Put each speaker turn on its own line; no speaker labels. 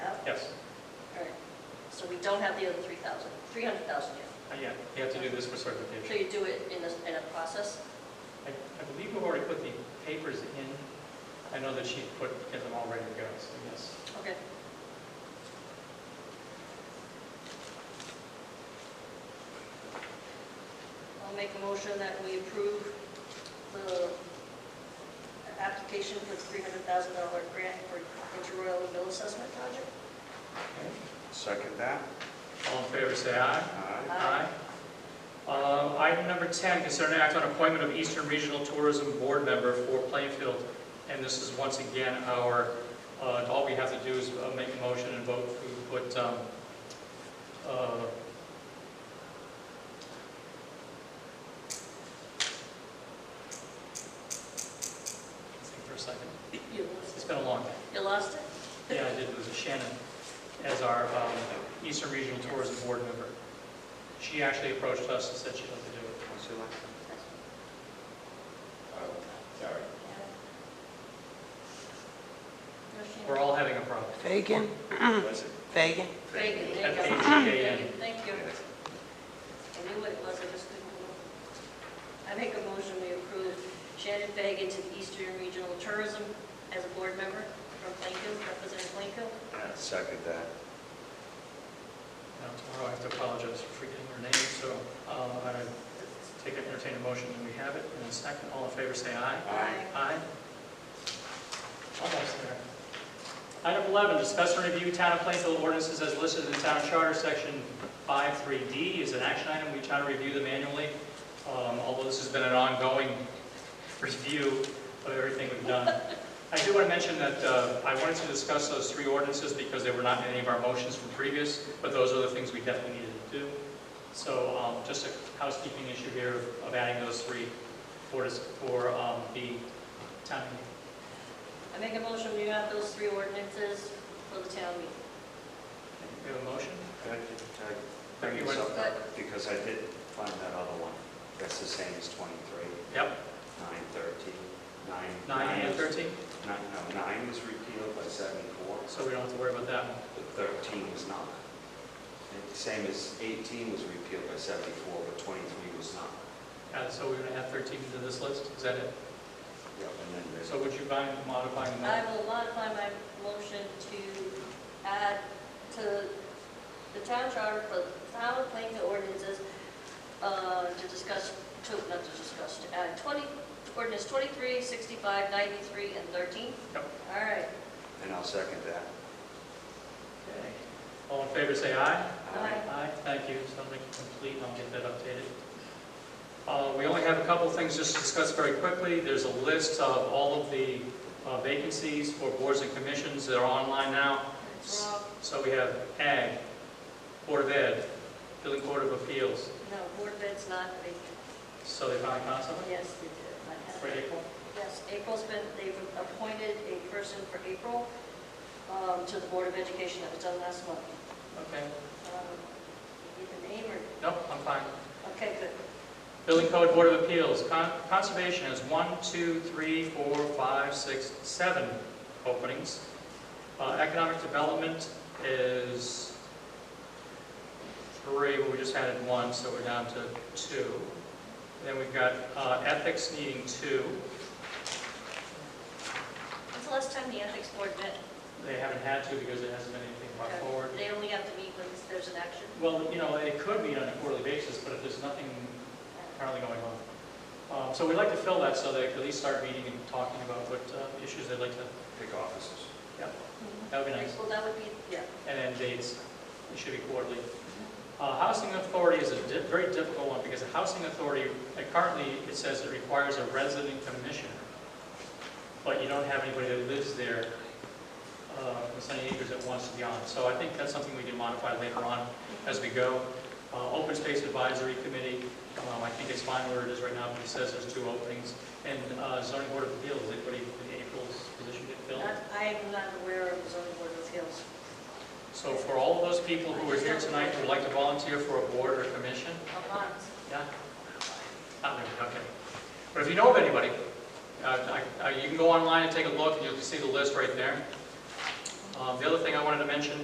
Oh, don't have the other 3,000, 300,000 yet.
Uh, Yeah, you have to do this for
So
certification.
you do it in a, in a process?
I I believe we've already put the papers in. I know that she put, get them all ready to go, so yes.
Okay. I'll make a motion that we approve the application for the $300,000 grant for inter-royal mill assessment project.
Second that.
All in favor, say aye.
Aye.
Aye.
Uh, Item number 10, consider an act on appointment of Eastern Regional Tourism Board member for Plainfield. And this is once again our, uh, all we have to do is uh, make a motion and vote who put, um, uh, think for a second.
You lost
It's been a long day.
it. You lost it?
Yeah, I did lose it. Shannon as our um, Eastern Regional Tourism Board member. She actually approached us and said she'd like to do it.
What's your last name? uh,
Sorry.
We're all having a problem.
Fagan,
Was it?
Fagan.
Fagan, there Uh-huh. you go.
F-A-G-A-N.
Fagan, Thank you. I knew what it was, I just didn't know. I make a motion we approve Shannon Fagan to the Eastern Regional Tourism as a board member from Plainfield, representing Plainfield.
Uh, Second that.
Now, tomorrow I have to apologize for forgetting her name, so um, I take it, entertain a motion, and we have it. And a second, all in favor, say aye.
Aye.
Aye. Almost there. Item 11, discuss and review town of Plainfield ordinances as listed in the town charter, section 53D is an action item. We try to review them annually, um, although this has been an ongoing review of everything we've done. I do want to mention that uh, I wanted to discuss those three ordinances because they were not in any of our motions from previous, but those are the things we definitely needed to do. So um, just a housekeeping issue here of adding those three for this- for um, the town meeting.
I make a motion we adopt those three ordinances for the town meeting.
We have a motion?
Can I can I bring
You
this
want-
up? Because I did find that other one. That's the same as 23,
Yep,
9, 13, 9.
9 and 13,
Nine, no, 9 was repealed by 74,
so we don't have to worry about that one.
but 13 was not. And the Same as 18 was repealed by 74, but 23 was not.
Uh, So we're going to add 13 to this list, is that it?
Yep, and then there's,
So would you mind modifying
I
that?
will modify my motion to add to the town charter for town planning ordinances uh, to discuss, to, not to discuss, to add 20, ordinance 23, 65, 93, and 13?
Yep.
All right.
and I'll second that.
Okay. All in favor, say aye.
Aye.
Aye, thank you, sounds like it's complete, and I'll get that updated. Uh, We only have a couple of things just to discuss very quickly. There's a list of all of the uh, vacancies for boards and commissions that are online now.
It's Rob,
So we have Ag, Board of Ed, Building Court of Appeals,
no, board bed's not vacant.
so they finally found someone
Oh, Yes, they did. I
for
have it.
April?
Yes, April's been, they've appointed a person for April um, to the Board of Education that was done last month.
Okay,
Um, you Need the name or?
nope, I'm fine.
Okay, good.
Building Code Board of Appeals, Con- Conservation has one, two, three, four, five, six, seven openings. Uh, Economic Development is three, but we just added one, so we're down to two. Then we've got uh, Ethics needing two,
When's the last time the ethics board met?
they haven't had to because it hasn't been anything brought forward.
They only have to meet when there's an action.
Well, you know, it could be on a quarterly basis, but if there's nothing currently going on. Um, So we'd like to fill that so they could at least start meeting and talking about what uh, issues they'd like to,
Pick offices.
that would be nice.
Well, that would be, yeah.
And then dates, it should be quarterly. Uh, Housing authority is a di- very difficult one because the housing authority, uh, currently, it says it requires a resident commissioner. But you don't have anybody that lives there, uh, in Sunny Acres that wants to be on. So I think that's something we can modify later on as we go. Uh, Open Space Advisory Committee, um, I think it's fine where it is right now, but it says there's two openings. And uh, zoning board of appeals, anybody in April's position get filled?
Not- I am not aware of the zoning board of appeals.
So for all of those people who are here tonight who would like to volunteer for a board or commission,
I'm not.
yeah? Not really, okay. But if you know of anybody, uh, I- I- you can go online and take a look, and you'll see the list right there. Um, The other thing I wanted to mention